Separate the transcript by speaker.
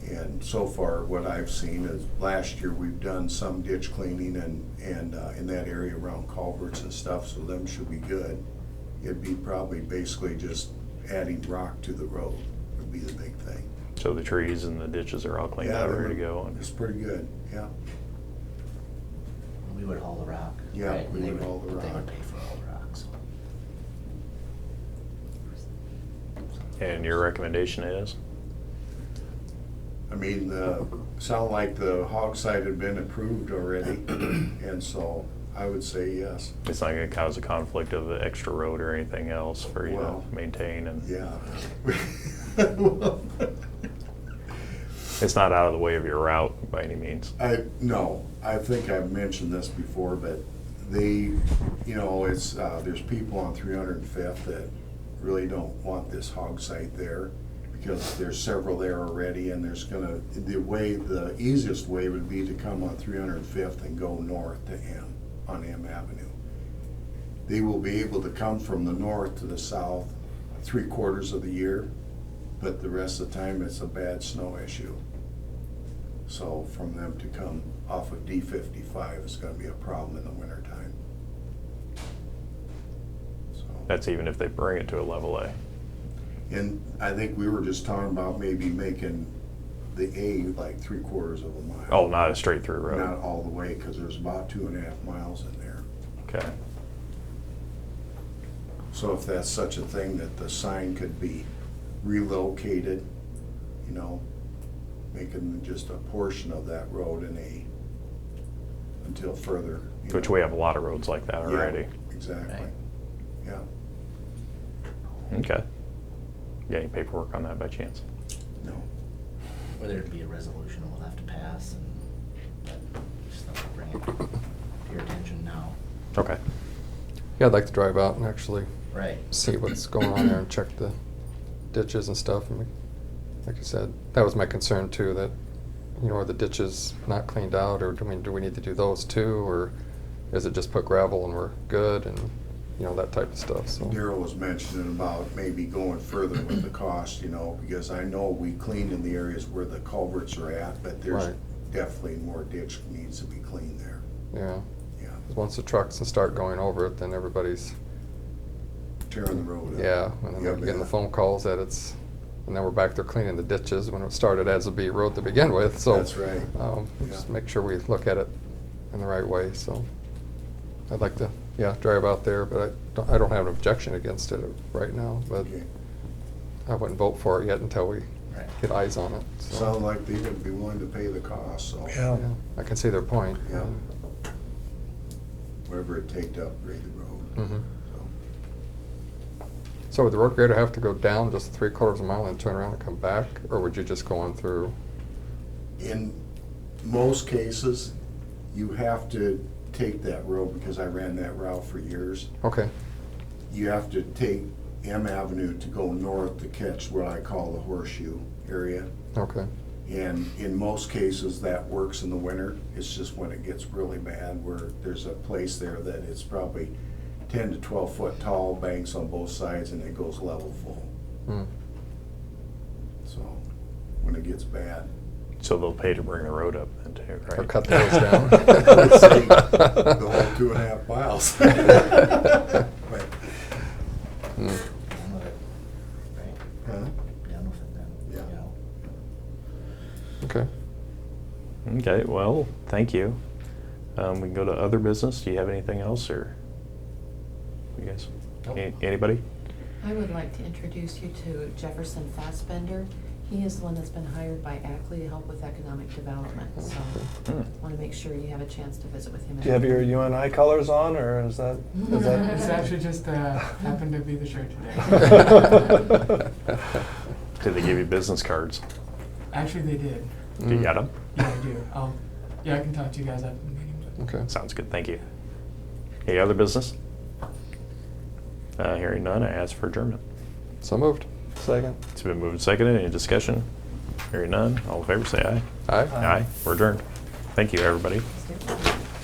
Speaker 1: so far, what I've seen is last year, we've done some ditch cleaning and, and uh, in that area around culverts and stuff, so them should be good. It'd be probably basically just adding rock to the road would be the big thing.
Speaker 2: So the trees and the ditches are all cleaned
Speaker 1: Yeah,
Speaker 2: out,
Speaker 1: they
Speaker 2: ready to
Speaker 1: were-
Speaker 2: go.
Speaker 1: It's pretty good, yeah.
Speaker 3: We would haul the rock.
Speaker 1: Yeah,
Speaker 3: right?
Speaker 1: we
Speaker 3: They
Speaker 1: would haul the
Speaker 3: but They
Speaker 1: rock.
Speaker 3: would pay for all the rocks.
Speaker 2: And your recommendation is?
Speaker 1: I mean, the, sound like the hog site had been approved already, and so I would say yes.
Speaker 2: It's not gonna cause a conflict of an extra road or anything else for you to
Speaker 1: Well,
Speaker 2: maintain and
Speaker 1: Yeah.
Speaker 2: it's not out of the way of your route by any means.
Speaker 1: I, no, I think I've mentioned this before, but they, you know, it's, uh, there's people on three hundred and fifth that really don't want this hog site there because there's several there already and there's gonna, the way, the easiest way would be to come on three hundred and fifth and go north to M, on M Avenue. They will be able to come from the north to the south three quarters of the year, but the rest of the time it's a bad snow issue. So from them to come off of D fifty-five is gonna be a problem in the wintertime. So,
Speaker 2: That's even if they bring it to a level A.
Speaker 1: and I think we were just talking about maybe making the A like three quarters of a mile.
Speaker 2: Oh, not a straight through
Speaker 1: Not
Speaker 2: road.
Speaker 1: all the way, cause there's about two and a half miles in there.
Speaker 2: Okay.
Speaker 1: So if that's such a thing that the sign could be relocated, you know, making just a portion of that road an A until further. you
Speaker 2: Which
Speaker 1: know.
Speaker 2: we have a lot of roads like that
Speaker 1: Yeah,
Speaker 2: already.
Speaker 1: Exactly,
Speaker 3: Right.
Speaker 1: yeah.
Speaker 2: Okay. You got any paperwork on that by chance?
Speaker 1: No,
Speaker 3: Or there'd be a resolution we'll have to pass and, but just thought I'd bring it to your attention now.
Speaker 2: Okay.
Speaker 4: Yeah, I'd like to drive out and actually
Speaker 3: Right.
Speaker 4: see what's going on there and check the ditches and stuff. And like I said, that was my concern too, that, you know, are the ditches not cleaned out or do we, do we need to do those too? Or is it just put gravel and we're good and, you know, that type of stuff, so.
Speaker 1: Daryl was mentioning about maybe going further with the cost, you know, because I know we cleaned in the areas where the culverts are at, but there's
Speaker 4: Right.
Speaker 1: definitely more ditch needs to be cleaned there,
Speaker 4: Yeah,
Speaker 1: yeah,
Speaker 4: 'Cause once the trucks start going over it, then everybody's,
Speaker 1: tearing the road up.
Speaker 4: yeah, and then
Speaker 1: Yeah,
Speaker 4: we're getting the
Speaker 1: man.
Speaker 4: phone calls that it's, and then we're back there cleaning the ditches when it started as a B road to begin with, so.
Speaker 1: That's right,
Speaker 4: Um,
Speaker 1: Yeah.
Speaker 4: Just make sure we look at it in the right way, so I'd like to, yeah, drive out there, but I don't, I don't have an objection against it right now, but
Speaker 1: okay,
Speaker 4: I wouldn't vote for it yet until we
Speaker 3: Right.
Speaker 4: get eyes on it, so.
Speaker 1: sound like they would be willing to pay the cost, so.
Speaker 4: yeah, I can see their point.
Speaker 1: Yeah. Whatever it take to upgrade the road,
Speaker 4: Mhm.
Speaker 1: so,
Speaker 4: So would the road grader have to go down just three quarters of a mile and turn around and come back, or would you just go on through?
Speaker 1: in most cases, you have to take that road, because I ran that route for years,
Speaker 4: Okay,
Speaker 1: you have to take M Avenue to go north to catch what I call the horseshoe area.
Speaker 4: okay,
Speaker 1: And in most cases, that works in the winter. It's just when it gets really bad where there's a place there that it's probably ten to twelve foot tall, banks on both sides, and it goes level full.
Speaker 4: Hmm.
Speaker 1: So, when it gets bad.
Speaker 2: So they'll pay to bring the road up then too, right?
Speaker 4: or cut those down.
Speaker 1: I would say The whole two and a half miles. But,
Speaker 3: Done
Speaker 4: Hmm.
Speaker 3: with it. Right,
Speaker 1: huh?
Speaker 3: done with it then, you
Speaker 1: Yeah.
Speaker 3: know?
Speaker 4: Okay.
Speaker 2: Okay, well, thank you. Um, we can go to other business. Do you have anything else or? You guys? Any- Anybody?
Speaker 5: I would like to introduce you to Jefferson Fassbender. He is the one that's been hired by Ackley to help with economic development, so
Speaker 2: Hmm.
Speaker 5: want to make sure you have a chance to visit with him.
Speaker 6: Do you have your UNI colors on, or is that, is
Speaker 7: It's
Speaker 6: that?
Speaker 7: actually just uh, happened to be the shirt today.
Speaker 2: Did they give you business cards?
Speaker 7: actually, they did.
Speaker 2: Do
Speaker 4: Mm. Hmm.
Speaker 2: you got them?
Speaker 7: Yeah, I do. Um, yeah, I can talk to you guys after the meeting. But
Speaker 4: Okay.
Speaker 2: Sounds good, thank you. Any other business? Uh, hearing none, I ask for adjournment.
Speaker 4: So moved.
Speaker 6: Second.
Speaker 2: It's been moved and seconded. Any discussion? Hearing none, all in favor, say aye.
Speaker 4: Aye.
Speaker 6: Aye.
Speaker 2: Aye, we're adjourned. Thank you, everybody.
Speaker 5: Let's do it.